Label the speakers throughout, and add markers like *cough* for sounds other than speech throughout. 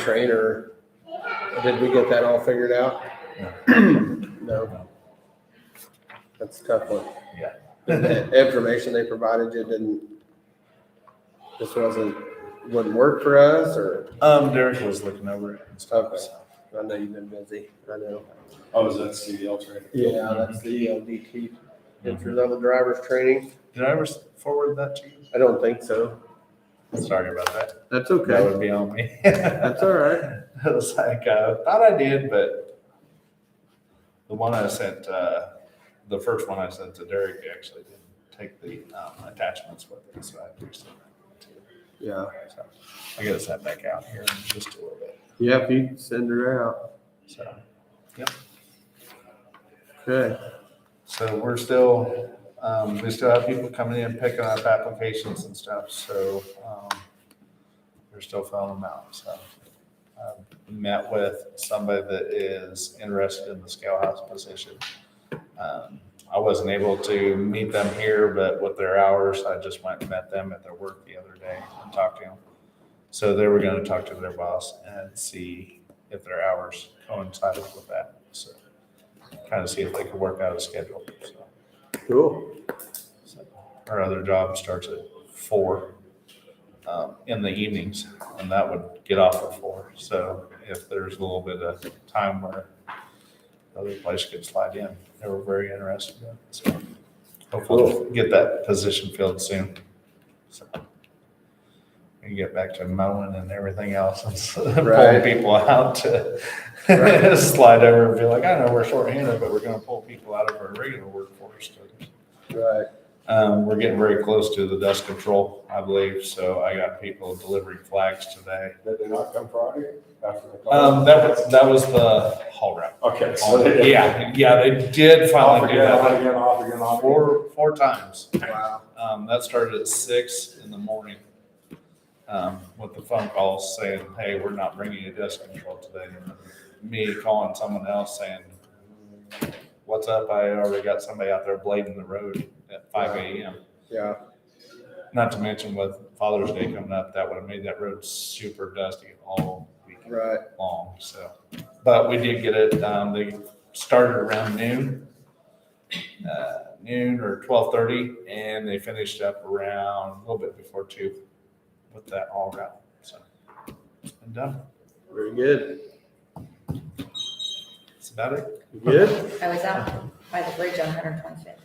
Speaker 1: train or did we get that all figured out? No. That's a tough *laughs* one.
Speaker 2: Yeah.
Speaker 1: *laughs* The information they provided you didn't, this wasn't, wouldn't work for us or,
Speaker 2: Um, Derek was looking over it and stuff.
Speaker 1: Okay.
Speaker 2: so.
Speaker 1: I know you've been busy, I know.
Speaker 3: Oh, is that CDL training?
Speaker 1: Yeah, that's the E ELDT, entry level drivers training.
Speaker 2: Did I ever forward that to you?
Speaker 1: I don't think so.
Speaker 2: Sorry about that.
Speaker 1: That's
Speaker 2: That would be on me. *laughs*
Speaker 1: That's all right.
Speaker 2: I was like, I thought I did, but the one I sent, uh, the first one I sent to Derek actually didn't take the, um, attachments with it, so I have to send that to you.
Speaker 1: Yeah,
Speaker 2: So I gotta send back out here in just a little bit,
Speaker 1: yeah, if you send her out,
Speaker 2: so.
Speaker 1: okay.
Speaker 2: So we're still, um, we still have people coming in picking up applications and stuff, so, um, we're still filling them out, so. Um, Met with somebody that is interested in the scale house position. Um, I wasn't able to meet them here, but with their hours, I just went and met them at their work the other day and talked to them. So they were gonna talk to their boss and see if their hours coincided with that, so kind of see if they could work out a schedule. so.
Speaker 1: Cool.
Speaker 2: So, Our other job starts at four um, in the evenings, and that would get off at four. So if there's a little bit of time where other place could slide in, they were very interested in it. So Hopefully we'll get that position filled soon. So And get back to mowing and everything else and *laughs* s- pulling
Speaker 1: Right.
Speaker 2: people out to
Speaker 1: Right.
Speaker 2: *laughs* slide over and be like, I know we're shorthanded, but we're gonna pull people out of our regular workforce to
Speaker 1: Right.
Speaker 2: um, we're getting very close to the dust control, I believe, so I got people delivering flags today.
Speaker 3: Did they not come Friday after the class?
Speaker 2: Um, that was, that was the haul route.
Speaker 3: Okay, so they.
Speaker 2: *laughs* Yeah, yeah, they did
Speaker 3: Off
Speaker 2: finally do
Speaker 3: again, on
Speaker 2: that,
Speaker 3: again, off again, off.
Speaker 2: like,
Speaker 3: again.
Speaker 2: four, four times.
Speaker 1: Wow.
Speaker 2: Um, that started at six in the morning, um, with the phone calls saying, hey, we're not bringing you dust control today. And Me calling someone else saying, what's up, I already got somebody out there blading the road at five AM.
Speaker 1: Yeah,
Speaker 2: Not to mention with Father's Day coming up, that would have made that road super dusty all weekend
Speaker 1: right.
Speaker 2: long, so. But we did get it, um, they started around noon, uh, noon or twelve thirty, and they finished up around a little bit before two with that all route, so. It's been done,
Speaker 1: Very good.
Speaker 2: that's about it.
Speaker 1: You Good?
Speaker 4: I was out by the bridge on 125th,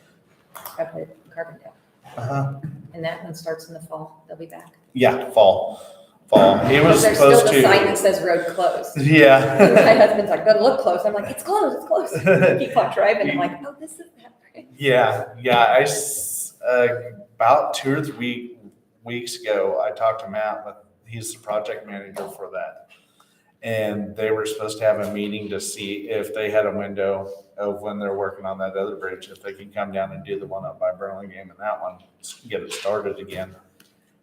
Speaker 4: up at Carbondale,
Speaker 2: Uh-huh.
Speaker 4: and that one starts in the fall. They'll be back.
Speaker 2: Yeah, fall, fall, he was
Speaker 4: There's still
Speaker 2: supposed
Speaker 4: the sign that
Speaker 2: to.
Speaker 4: says road closed. My
Speaker 2: Yeah. *laughs*
Speaker 4: husband's like, "Go look close." I'm like, "It's closed, it's closed." *laughs* He clocked driving. I'm like, "Oh, this is that bridge."
Speaker 2: Yeah, yeah. I s- uh, about two or three weeks ago, I talked to Matt. But he's the project manager for that, and they were supposed to have a meeting to see if they had a window of when they're working on that other bridge, if they can come down and do the one up by Burlingame and that one, s- get it started again.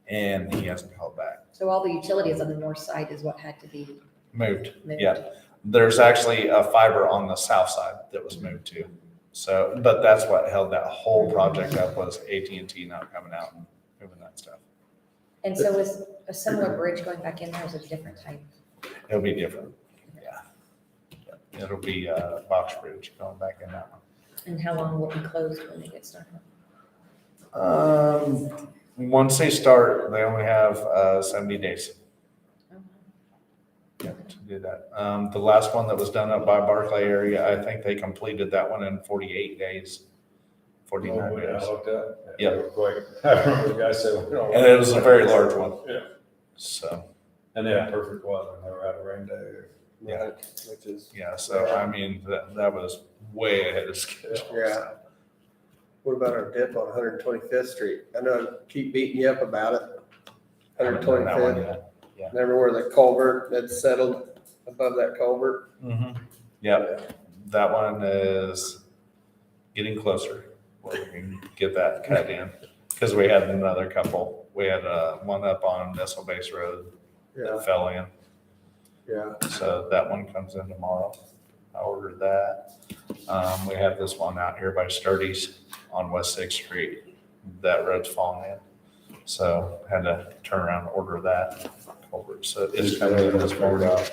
Speaker 2: And he hasn't called back.
Speaker 4: So all the utilities on the north side is what had to be
Speaker 2: Moved.
Speaker 4: moved.
Speaker 2: Yeah. there's actually a fiber on the south side that was moved to. So, but that's what held that whole project up was AT&T not coming out and moving that stuff.
Speaker 4: And so is a similar bridge going back in there is a different type.
Speaker 2: It'll be different. Yeah. It'll be uh box bridge going back in that one.
Speaker 4: And how long will it be closed when they get started?
Speaker 2: Um, once they start, they only have uh seventy days yeah, to do that. Um, the last one that was done up by Barclay area, I think they completed that one in forty-eight days.
Speaker 3: Oh,
Speaker 2: Forty-nine
Speaker 3: yeah,
Speaker 2: days.
Speaker 3: I looked up.
Speaker 2: Yeah.
Speaker 3: Real Quick. *laughs* I remember the guy said. you know,
Speaker 2: And it was a very large one.
Speaker 3: Yeah.
Speaker 2: So,
Speaker 3: And they had perfect weather, and they were out of rain day.
Speaker 2: Yeah.
Speaker 1: Right, Which is,
Speaker 2: yeah, so I mean, that, that was way ahead of schedule.
Speaker 1: Yeah. what about our dip on Hundred Twenty-Fifth Street? I know I keep beating you up about it. Hundred
Speaker 2: Haven't done that one
Speaker 1: Twenty-Fifth,
Speaker 2: yet.
Speaker 1: remember where the culvert that's settled above that culvert?
Speaker 2: Mhm. Yep, that one is getting closer. where We can get that cut in, because we had another couple, we had, uh, one up on Nestle Base Road
Speaker 1: Yeah,
Speaker 2: that fell in.
Speaker 1: yeah,
Speaker 2: So that one comes in tomorrow. I ordered that. Um, we have this one out here by Sturdy's on West Sixth Street. That road's falling in. So had to turn around and order that.
Speaker 5: forward, so.
Speaker 2: It's
Speaker 5: coming
Speaker 2: coming in this morning.